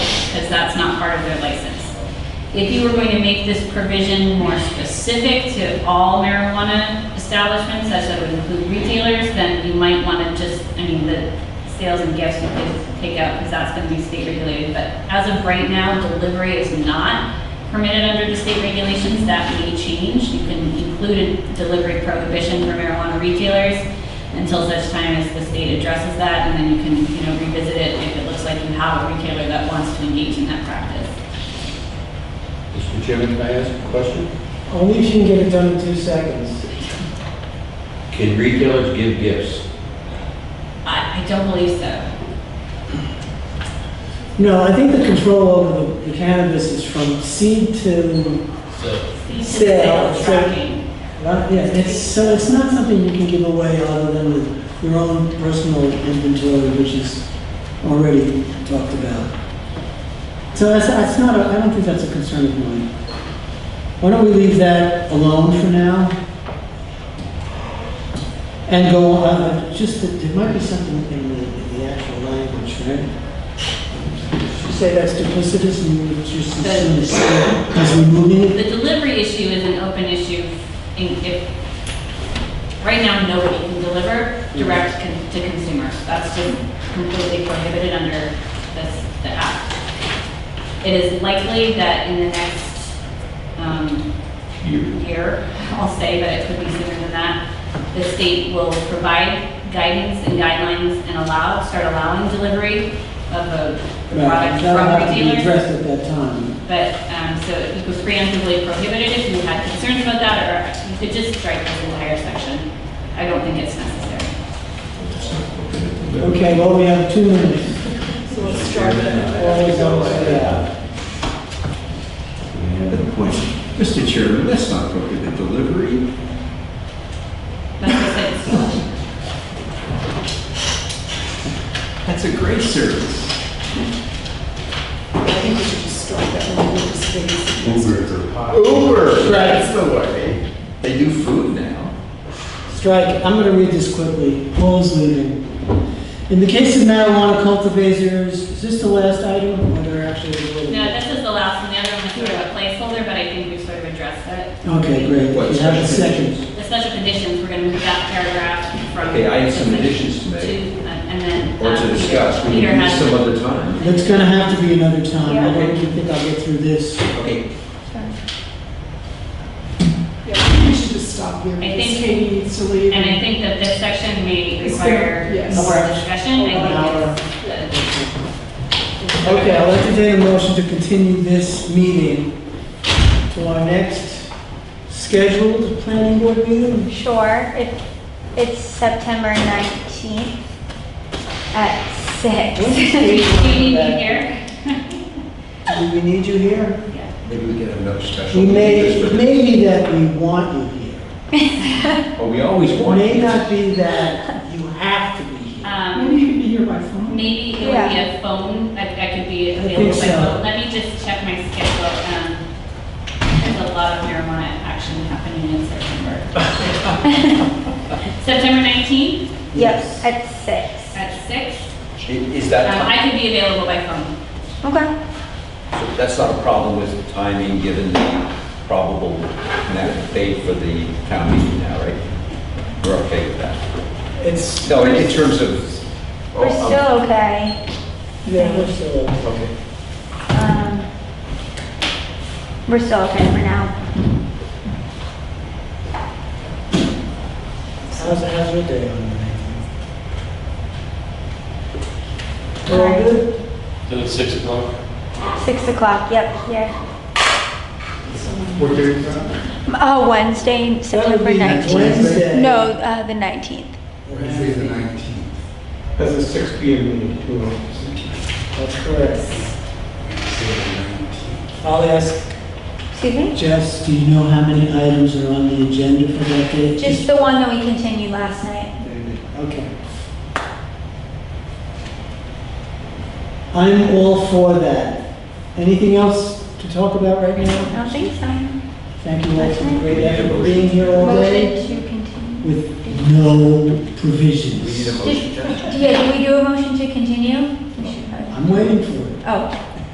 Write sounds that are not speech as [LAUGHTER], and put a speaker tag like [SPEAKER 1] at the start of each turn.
[SPEAKER 1] because that's not part of their license. If you were going to make this provision more specific to all marijuana establishments, such that it would include retailers, then you might want to just, I mean, the sales and gifts you could take out, because that's going to be state regulated. But as of right now, delivery is not permitted under the state regulations. That may change. You can include a delivery prohibition for marijuana retailers until such time as the state addresses that, and then you can, you know, revisit it if it looks like you have a retailer that wants to engage in that practice.
[SPEAKER 2] Mr. Chairman, can I ask a question?
[SPEAKER 3] Only if you can get it done in two seconds.
[SPEAKER 2] Can retailers give gifts?
[SPEAKER 1] I, I don't believe so.
[SPEAKER 3] No, I think the control over the- the cannabis is from seed to,
[SPEAKER 1] These are
[SPEAKER 3] Sale,
[SPEAKER 1] sales
[SPEAKER 3] so-
[SPEAKER 1] tracking.
[SPEAKER 3] yeah, it's, so it's not something you can give away other than with your own personal inventory, which is already talked about. So that's, that's not, a- I don't think that's a concern of mine. Why don't we leave that alone for now? And go, uh, just, that there might be something in the, in the actual language, right? You say that's duplicitous and you would just assume it's, as removing it?
[SPEAKER 1] The delivery issue is an open issue. In, if, right now, nobody can deliver direct con- to consumers. That's just completely prohibited under this, the act. It is likely that in the next, um, year, I'll say, but it could be sooner than that, the state will provide guidance and guidelines and allow, start allowing delivery of a
[SPEAKER 3] Right,
[SPEAKER 1] product
[SPEAKER 3] That'll
[SPEAKER 1] from
[SPEAKER 3] have to be
[SPEAKER 1] retailers.
[SPEAKER 3] addressed at that time.
[SPEAKER 1] But, um, so you could preemptively prohibit it if you had concerns about that, or you could just strike this entire section. I don't think it's necessary.
[SPEAKER 3] Okay, well, we have two minutes.
[SPEAKER 4] So let's
[SPEAKER 2] Mr.
[SPEAKER 4] start
[SPEAKER 2] Chairman,
[SPEAKER 4] with,
[SPEAKER 2] I ask
[SPEAKER 3] Always
[SPEAKER 2] a
[SPEAKER 3] goes
[SPEAKER 2] question.
[SPEAKER 3] yeah.
[SPEAKER 5] At the point, Mr. Chairman, that's not prohibited delivery.
[SPEAKER 1] That's what it
[SPEAKER 5] That's a great service.
[SPEAKER 4] I think we should just start that one with this phase.
[SPEAKER 5] Uber,
[SPEAKER 3] Right.
[SPEAKER 5] that's the way. They do food now.
[SPEAKER 3] Strike, I'm gonna read this quickly. Paul's leaving. In the case of marijuana cultivators, is this the last item, or there actually is
[SPEAKER 1] is.
[SPEAKER 3] one?
[SPEAKER 1] No, this is the last one, the other one is sort of a placeholder, but I think we've sort of addressed it.
[SPEAKER 3] Okay, great.
[SPEAKER 5] What,
[SPEAKER 3] You have a
[SPEAKER 5] special
[SPEAKER 3] second.
[SPEAKER 1] The special conditions, we're gonna move that paragraph from.
[SPEAKER 5] Okay, I have some additions to
[SPEAKER 1] to- uh,
[SPEAKER 5] make,
[SPEAKER 1] And then.
[SPEAKER 5] or to
[SPEAKER 1] um,
[SPEAKER 5] discuss, we
[SPEAKER 1] Peter
[SPEAKER 5] can do
[SPEAKER 1] has
[SPEAKER 5] some
[SPEAKER 1] the-
[SPEAKER 5] other time.
[SPEAKER 3] That's gonna have to be another time. I
[SPEAKER 5] Yeah.
[SPEAKER 3] don't think I'll get through this.
[SPEAKER 5] Okay,
[SPEAKER 4] Yeah, I think we should just stop here,
[SPEAKER 1] I think-
[SPEAKER 4] because Katie needs to leave.
[SPEAKER 1] And I think that this section may
[SPEAKER 4] Is there-
[SPEAKER 1] require
[SPEAKER 4] yes.
[SPEAKER 1] more discussion. I think it's, uh,
[SPEAKER 3] Okay, I'll entertain a motion to continue this meeting to our next scheduled planning board meeting.
[SPEAKER 6] Sure, it, it's September 19th at
[SPEAKER 3] When's
[SPEAKER 6] six.
[SPEAKER 1] uh, do
[SPEAKER 3] Katie
[SPEAKER 1] you need
[SPEAKER 3] coming
[SPEAKER 1] me
[SPEAKER 3] back?
[SPEAKER 1] here?
[SPEAKER 3] Do we need you here?
[SPEAKER 5] maybe we get another special.
[SPEAKER 3] We may,
[SPEAKER 5] meeting
[SPEAKER 3] it
[SPEAKER 5] this way.
[SPEAKER 3] may be that we want you here.
[SPEAKER 5] But we always
[SPEAKER 3] It
[SPEAKER 5] want.
[SPEAKER 3] may
[SPEAKER 5] it.
[SPEAKER 3] not be that you have to be here.
[SPEAKER 1] Um,
[SPEAKER 4] Maybe you can be here by phone.
[SPEAKER 1] Maybe it would be a phone, I, I could be
[SPEAKER 3] think
[SPEAKER 1] available by
[SPEAKER 3] so.
[SPEAKER 1] phone. Let me just check my schedule. Um, There's a lot of marijuana action happening in September.
[SPEAKER 3] [LAUGHS]
[SPEAKER 1] September 19th
[SPEAKER 6] Yep, at six.
[SPEAKER 1] at 6.
[SPEAKER 5] I- Is
[SPEAKER 1] Um,
[SPEAKER 5] that,
[SPEAKER 1] I
[SPEAKER 5] time-
[SPEAKER 1] could be available by phone.
[SPEAKER 6] Okay,
[SPEAKER 5] that's not a problem with timing, given the probable na- date for the town meeting now, right? We're okay with that.
[SPEAKER 3] It's,
[SPEAKER 5] No, in in terms of. oh,
[SPEAKER 6] we're
[SPEAKER 5] I'm-
[SPEAKER 6] still okay.
[SPEAKER 3] yeah, we're still,
[SPEAKER 5] Okay.
[SPEAKER 6] Um, We're still okay for now.
[SPEAKER 3] how's, how's your day on the nineteenth? We're all good?
[SPEAKER 7] Then it's six o'clock.
[SPEAKER 6] Six o'clock, yep, yeah.
[SPEAKER 2] What day is
[SPEAKER 6] Oh, Wednesday,
[SPEAKER 3] would
[SPEAKER 6] September
[SPEAKER 3] be
[SPEAKER 6] 19th.
[SPEAKER 3] Wednesday.
[SPEAKER 6] No, uh, the 19th.
[SPEAKER 3] Wednesday the nineteenth.
[SPEAKER 2] That's a six P M meeting, two
[SPEAKER 3] That's correct. I'll ask
[SPEAKER 6] Excuse me?
[SPEAKER 3] Jess, do you know how many items are on the agenda for that day?
[SPEAKER 6] Just the one that we continued last night.
[SPEAKER 3] Okay. I'm all for that. Anything else to talk about right
[SPEAKER 6] I
[SPEAKER 3] now?
[SPEAKER 6] don't think so.
[SPEAKER 3] Thank you all for the great
[SPEAKER 5] We need a
[SPEAKER 3] effort of
[SPEAKER 5] motion.
[SPEAKER 3] being here all
[SPEAKER 6] Motion
[SPEAKER 3] day
[SPEAKER 6] to continue.
[SPEAKER 3] with no
[SPEAKER 5] We need a
[SPEAKER 3] provisions.
[SPEAKER 5] motion, Jennifer.
[SPEAKER 6] Did- Yeah, did we do a motion to continue? We should probably-
[SPEAKER 3] I'm waiting for it.
[SPEAKER 6] Oh,